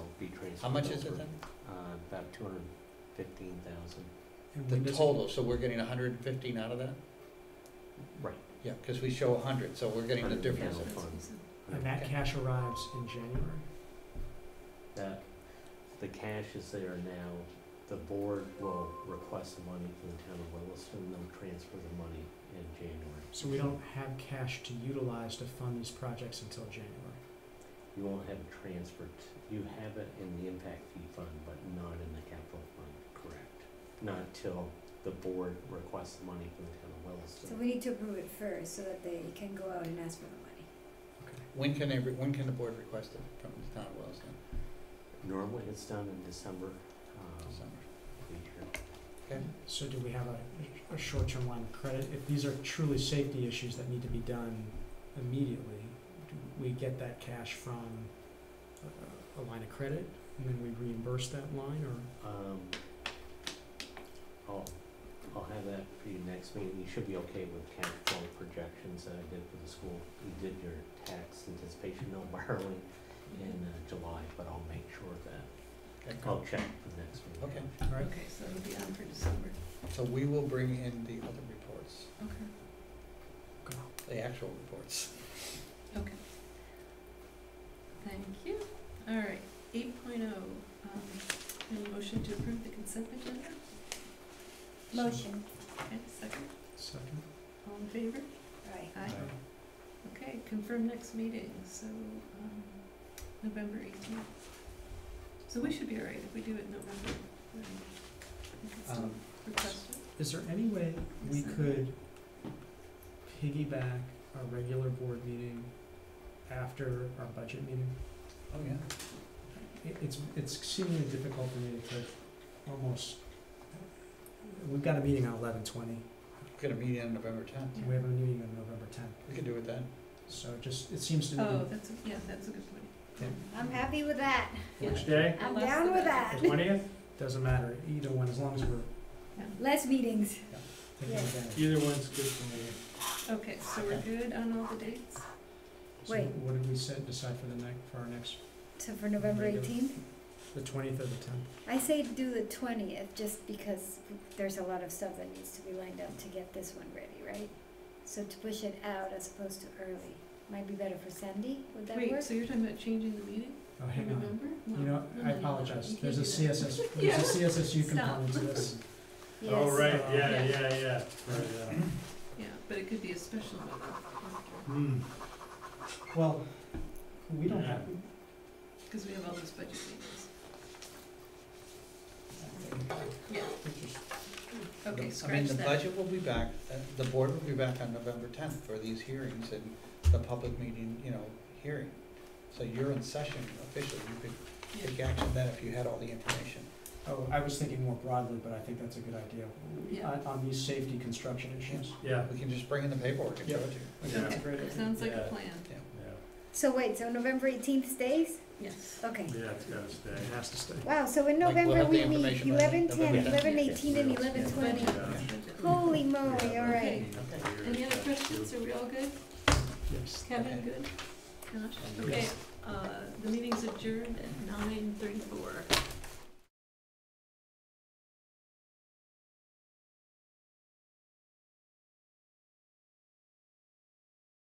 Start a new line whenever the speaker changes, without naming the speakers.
How much is it then?
Uh, about two hundred and fifteen thousand.
And
The
when does it-
total, so we're getting hundred and fifteen out of that?
Right.
Yeah, because we show hundred, so we're getting the
Hundred, yeah.
difference.
And that cash arrives in January.
That, the cash is there now, the board will request the money from the town of Williston, they'll transfer the money in January.
So we don't have cash to utilize to fund these projects until January.
You won't have it transferred, to- you have it in the impact fee fund, but not in the capital fund, correct? Not till the board requests the money from the town of
So
Williston.
we need to approve it first so that they can go out and ask for the money.
When can every, when can the board request it from the town of Williston?
Normally it's done in December, um,
December.
we hear.
Okay.
So do we have a, a short-term line of credit? If these are truly safety issues that need to be done immediately, do we get that cash from a- a, a line of credit and then we reimburse that line or?
Um, I'll, I'll have that for you next meeting, you should be okay with cash flow projections that I did for the school. You did your tax anticipation mill borrowing in uh, July, but I'll make sure that, I'll check for the next meeting.
Okay,
All right,
Okay, so it'll be on for December.
so we will bring in the other reports,
Okay.
go.
the actual reports.
Okay. Thank you. All right, eight point oh, um, any motion to approve the consent agenda?
Motion,
Okay, second,
Second.
all in favor?
right.
Aye. Okay, confirm next meeting, so, um, November eighteenth. So we should be all right if we do it in November. um, we can still
Um,
Request it.
Is there any way we could piggyback our regular board meeting after our budget meeting?
Oh, yeah.
It- It's, it's exceedingly difficult for me to almost, we've got a meeting on eleven twenty,
We're gonna meet in November tenth.
we have a meeting on November tenth.
We can do it then.
So it just, it seems to me.
Oh, that's, a- yeah, that's a good point.
Yeah.
I'm happy with that.
Which
Yeah.
day?
I'm
Less
down
the
with
better.
that.
Twentieth? Doesn't matter, either one, as long as we're
Less meetings.
taking
Yeah.
advantage.
Either one's good for me.
Okay, so we're
Okay.
good on all the dates?
So
Wait.
what did we set, decide for the next, for our next,
So for November
Regular.
eighteenth,
the twentieth or the tenth?
I say do the twentieth, just because there's a lot of stuff that needs to be lined up to get this one ready, right? So to push it out as opposed to early, might be better for Sandy, would that work?
Wait, so you're talking about changing the meeting?
Oh, hang on.
Remember?
You know,
No,
I
no, no, no, Mm-hmm. you
apologize,
can't
there's a
do that.
CSS,
Yeah.
there's a CSSU
Stop.
component to this.
Yes.
yeah,
yeah,
yeah.
Yeah, but it could be a special one,
Hmm. Well, we don't have,
because we have all those budget meetings. Yeah, okay,
I mean,
scratch
the
that.
budget will be back, uh, the board will be back on November tenth for these hearings and the public meeting, you know, hearing. So you're in session officially, you could take action then if you had all the information.
oh, I was thinking more broadly, but I think that's a good idea,
Yeah.
on, on these safety construction issues.
Yeah.
We can just bring in the paperwork and show it to you.
Yeah, that's a great
Okay,
idea.
sounds like a
Yeah.
plan,
So wait, so November eighteenth stays?
yes.
Okay.
Yeah, it's gotta stay.
It has to stay.
Wow, so
Like,
in
we'll
November
have the
we meet
information by
eleven ten,
November
eleven
10th.
eighteen, and eleven twenty.
Budget, budget.
Holy moly, all right.
Okay, any other questions, are we all good?
Yes.
Kevin,
Okay.
good? Josh?
good.
Okay, uh, the meeting's adjourned at nine thirty-four.